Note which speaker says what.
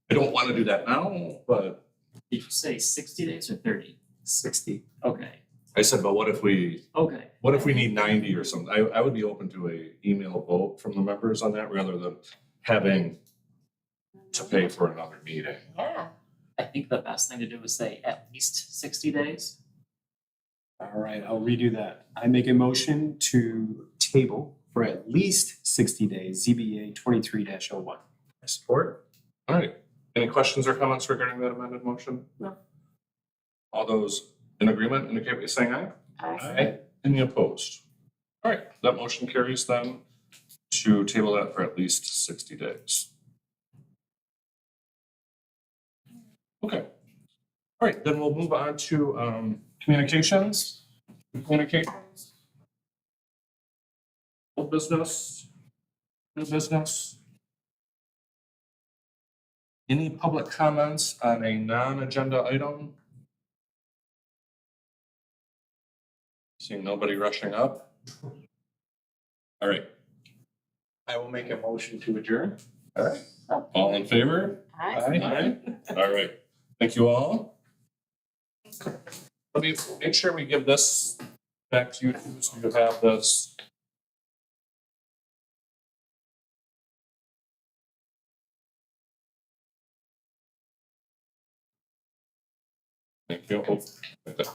Speaker 1: I don't want to do that now, but
Speaker 2: Did you say sixty days or thirty?
Speaker 3: sixty.
Speaker 2: Okay,
Speaker 1: I said, but what if we,
Speaker 2: okay.
Speaker 1: what if we need ninety or something? I, I would be open to a email vote from the members on that rather than having to pay for another meeting.
Speaker 4: Yeah,
Speaker 2: I think the best thing to do is say at least sixty days.
Speaker 3: All right, I'll redo that. I make a motion to table for at least sixty days, ZBA twenty-three dash oh one.
Speaker 1: I support. All right. Any questions or comments regarding that amended motion?
Speaker 4: No.
Speaker 1: All those in agreement indicate by saying aye.
Speaker 4: I
Speaker 1: Any opposed? All right, that motion carries then to table that for at least sixty days. Okay. All right, then we'll move on to um communications. Communications. Old business, new business. Any public comments on a non-agenda item? Seeing nobody rushing up. All right,
Speaker 3: I will make a motion to adjourn.
Speaker 1: all in favor? Aye. All right. Thank you all. Let me make sure we give this back to you too, so you have this. Thank you. Oh, like that.